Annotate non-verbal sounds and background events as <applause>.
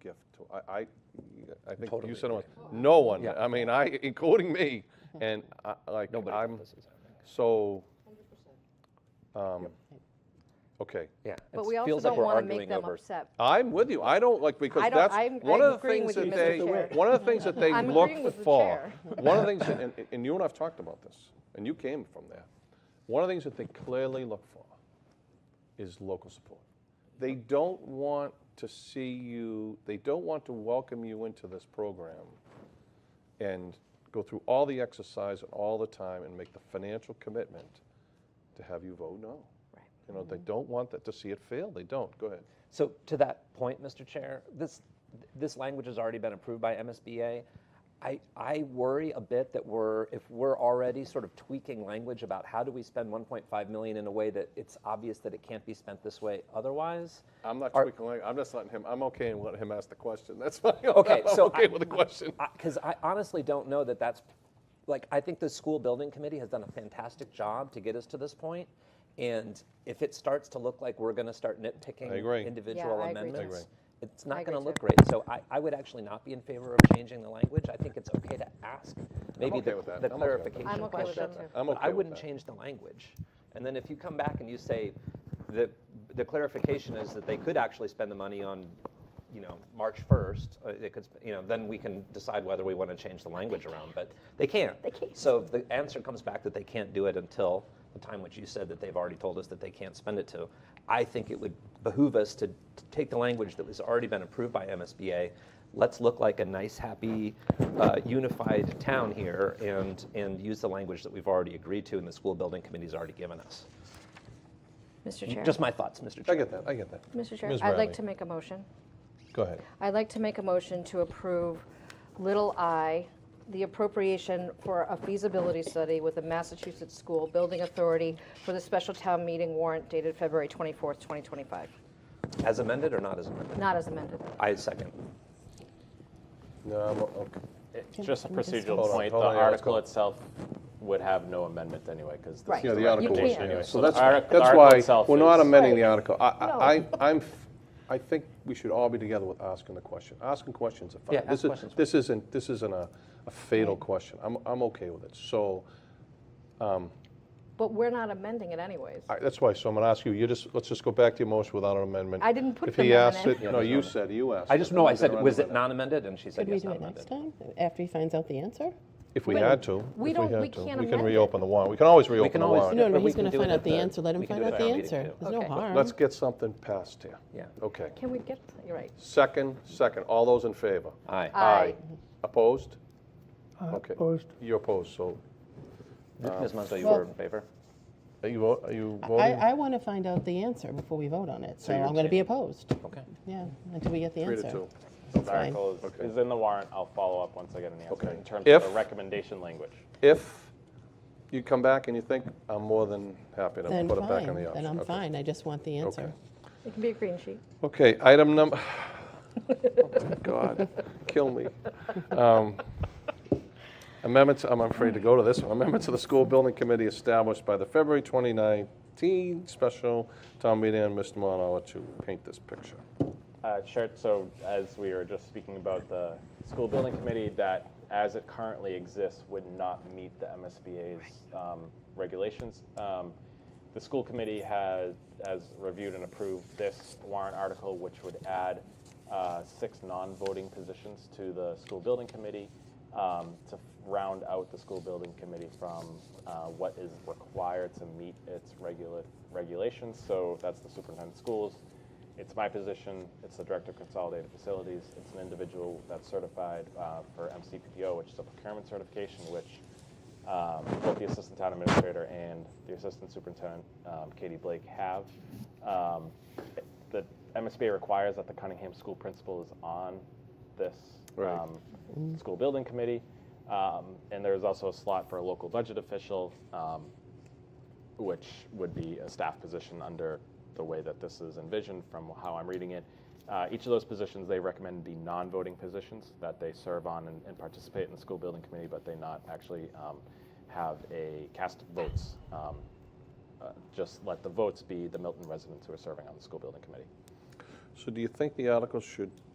gift to, I, I, I think you Totally said, it was- agree. no one, Yeah. I mean, I, <laughs> including me, and I, like, Nobody I'm, listens. so. um, Okay, Yeah. But it we also feels like don't we're want to arguing make them over- upset. I'm with you, I don't, like, because I don't- that's, I'm- one of I'm the agreeing things with you, that Mr. they, Chair. one of the things that they I'm agreeing look with the for. chair. One of the things, that- and, and you and I've talked about this, and you came from there, one of the things that they clearly look for is local support. They don't want to see you, they don't want to welcome you into this program and go through all the exercise and all the time and make the financial commitment to have you vote no. Right. You know, they don't want that to see it fail. They don't. Go ahead. So to that point, Mr. Chair, this, this language has already been approved by MSBA. I, I worry a bit that we're, if we're already sort of tweaking language about how do we spend 1.5 million in a way that it's obvious that it can't be spent this way otherwise. I'm not Are- tweaking. language. I'm just letting him. I'm okay and letting him ask the question. <laughs> That's fine. Okay, I'm so okay I- with the question. Because I honestly don't know that that's, like, I think the school building committee has done a fantastic job to get us to this point, And if it starts to look like we're gonna start nitpicking I agree. individual Yeah, I agree too. I amendments, it's I not agree gonna look too. great. So I, I would actually not be in favor of changing the language. I think it's okay to ask maybe okay the with that. the I'm okay with that. clarification I'm okay with question. that too. I'm but okay I with wouldn't that. change the language. And then if you come back and you say, the, the clarification is that they could actually spend the money on, you know, March 1st, uh, they could, sp- you know, then we can decide whether we want to change the language around, but they can't. They can't. So if the answer comes back that they can't do it until the time which you said that they've already told us that they can't spend it to, I think it would behoove us to, to take the language that was already been approved by MSBA, let's look like a nice, happy, uh, unified town here and, and use the language that we've already agreed to and the school building committee's already given us. Mr. Chair. Just my thoughts, Mr. I Chair. get that. I get that. Mr. Chair, Ms. I'd Riley, like to make a motion. Go ahead. I'd like to make a motion to approve little i, the appropriation for a feasibility study with the Massachusetts School Building Authority for the special town meeting warrant dated February 24th, 2025, As amended or not as amended? not as amended. I second. No, I'm o- okay. Just a procedural Hold on, point, the hold on, yeah, let's go. article itself would have no amendment anyway, because this Right. is Yeah, a the article was- recommendation You anyway. can't. So that's, the artic- the that's article why itself we're not is- amending the article. I, I, I- I'm, f- I think we should all be together with asking the question. Asking questions are fine. Yeah, This ask is- questions. This isn't, this isn't a a fatal question. I'm, I'm okay with it. So, But we're not amending it anyways. I- that's why, so I'm gonna ask you, you just, let's just go back to your motion without an amendment. I didn't put If the he amendment asks in. it, no, you said, you asked. I it. just, no, I said, There was isn't it an non-amended? And she said, Could we yes, do not it next amended. time, after he finds out the answer? If we But had to. we if don't- had we to. can't We can amend it. reopen the warrant. We can always reopen can the always warrant. do No, But no, we he's can gonna do it find at out the the- answer, let him we can find do it out at the our meeting, answer, too. there's no Okay. harm. Let's get something passed here. Yeah. Okay. Can we get, you're right. Second, second. All those in favor? Aye. Aye. Opposed? Okay. Opposed. You're opposed, so Ms. Musto, Uh, you Well- were in favor? are you, vo- are you I, voting? I want to find out the answer before we vote on it, so you're I'm going to be opposed, Okay. yeah, until we get the Three to answer. two. This fine. article is- Okay. is in the warrant, I'll follow up once I get an answer Okay. in terms If- of the recommendation language. If you come back and you think, I'm more than happy to Then put it back on fine, the option. then I'm Okay. fine, I just want the answer. It can be a green sheet. Okay, item <sighs> number, God, kill me. Um, Amendments, I'm afraid to go to this one. Amendment to the school building committee established by the February 2019 special town meeting, and Mr. Monawa to paint this picture. Uh, Chair, so as we were just speaking about the school building committee, that as it currently exists would not meet the MSBA's um, regulations. Um, The school committee has, has reviewed and approved this warrant article, which would add uh, six non-voting positions to the school building committee um, to round out the school building committee from uh, what is required to meet its regula- regulations. So that's the superintendent of schools, it's my position, it's the Director of Consolidated Facilities, it's an individual that's certified uh, for MCPPO, which is a procurement certification, which um, both the Assistant Town Administrator and the Assistant Superintendent, um, Katie Blake, have. Um, The MSBA requires that the Cunningham School Principal is on this Right. um, school building committee. Um, And there's also a slot for a local budget official. um, which would be a staff position under the way that this is envisioned from how I'm reading it. Uh, each of those positions, they recommend be non-voting positions that they serve on and, and participate in the school building committee, but they not actually um, have a cast of votes. Um, uh, just let the votes be the Milton residents who are serving on the school building committee. So do you think the article should